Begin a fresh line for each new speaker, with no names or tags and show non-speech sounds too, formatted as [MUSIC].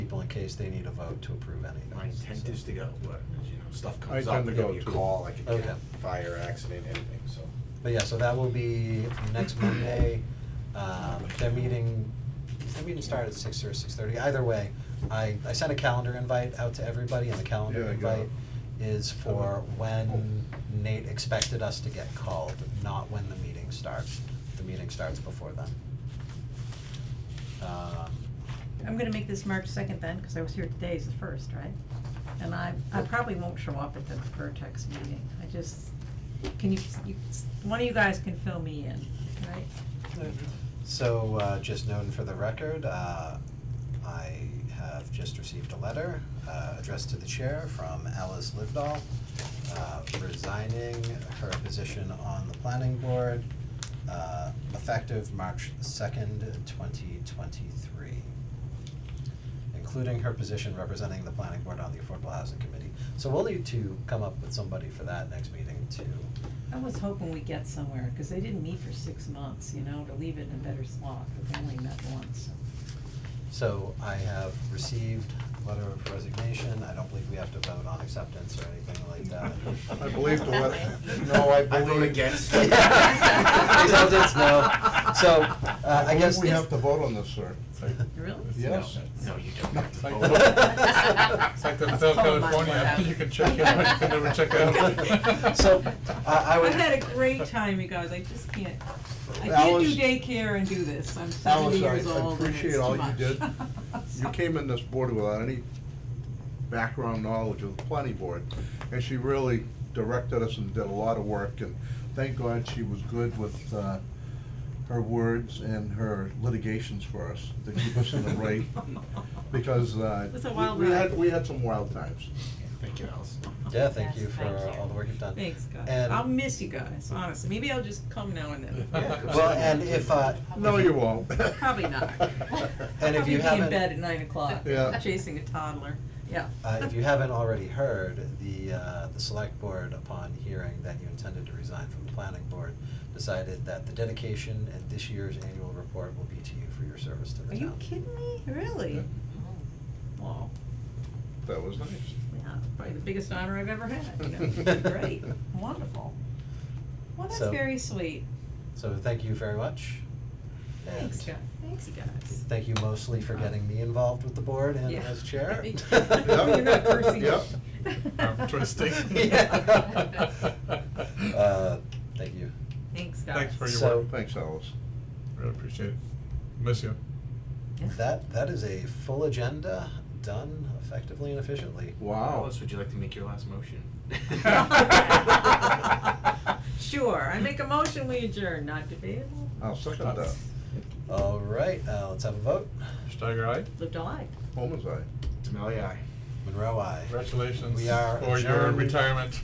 people in case they need a vote to approve anything.
My intent
so.
is to go, but, you know, stuff
I
comes
tend
up,
to
there
go
could be a
too.
call, I could
Okay.
get fire, accident, anything, so.
But yeah, so that will be next Monday. Um, their meeting, does their meeting start at six or six thirty? Either way, I, I sent a calendar invite out to everybody and the calendar
Yeah, I got it.
invite is for when Nate expected us to get called, not when the meeting starts. The meeting starts before then. Um,
I'm gonna make this March second then, cause I was here today is the first, right? And I, I probably won't show up at the Vertex meeting, I just, can you, you, one of you guys can fill me in, right?
So, uh, just known for the record, uh, I have just received a letter, uh, addressed to the chair from Alice Livedall, uh, resigning her position on the planning board, uh, effective March second, twenty twenty-three. Including her position representing the planning board on the Affordable Housing Committee. So we'll need to come up with somebody for that next meeting to
I was hoping we'd get somewhere, cause they didn't meet for six months, you know, to leave it in a better slot, but they only met once.
So I have received a letter of resignation, I don't believe we have to vote on acceptance or anything like that.
[LAUGHS] I believe the letter, no, I
I
believe.
vote
[LAUGHS]
against.
Acceptance, no. So, uh, I guess.
believe we have to vote on this, sir.
[LAUGHS]
Really?
Yes.
No, you don't have to
Like
vote.
that.
It's like the Hotel
Oh, my
California,
God.
you can check in, but you can never check
[LAUGHS]
[LAUGHS]
out.
So, I- I would-
I've had a great time, you guys, I just can't, I can't
Alice-
do daycare and do this, I'm
Alice,
seventy
I-
years
I
old and
appreciate
it's too
all you
much.
did. You
[LAUGHS] So-
came in this board without any background knowledge of the planning board, and she really directed us and did a lot of work, and thank God she was good with, uh, her words and her litigations for us, to keep us in the right,
[LAUGHS]
because, uh,
It was a
we-
wild
we had,
ride.
we had some wild times.
Thank you, Alice.
Yeah, thank you
Yes,
for
thank you.
all the work you've done.
Thanks, guys.
And-
I'll miss you guys, honestly. Maybe I'll just come now and then.
[LAUGHS] Well, and if, uh,
No, you won't. [LAUGHS]
Probably not.
And if you
I'll probably be
haven't-
in bed at nine o'clock,
Yeah.
chasing a toddler. Yeah.
Uh, if you haven't already heard, the, uh, the select board, upon hearing that you intended to resign from the planning board, decided that the dedication and this year's annual report will be to you for your service to the
Are
town.
you kidding me? Really? Wow.
That was nice.
Yeah, probably the biggest honor I've ever had,
[LAUGHS]
you know? Great, wonderful. Well, that's
So-
very sweet.
So thank you very much. and
Thanks, guys. Thanks, guys.
Thank you mostly for getting me involved with the board and
Yeah.
as chair. [LAUGHS]
[LAUGHS] You're not cursing. [LAUGHS]
Yep.
I'm twisting.
Yeah. Uh, thank you.
Thanks, guys.
Thanks for your
So-
work,
Thanks, Alice.
really appreciate it, miss you.
That, that is a full agenda, done effectively and efficiently.
Wow.
Alice, would you like to make your last
[LAUGHS]
motion? [LAUGHS]
Sure, I make a motion, we adjourn, not debatable,
I'll second that.
All right, uh, let's have a vote.
Steiger, aye?
lived a life.
Home is I.
Demelia, aye.
Monroe, I.
Congratulations
We are
for your
adjourned.
retirement.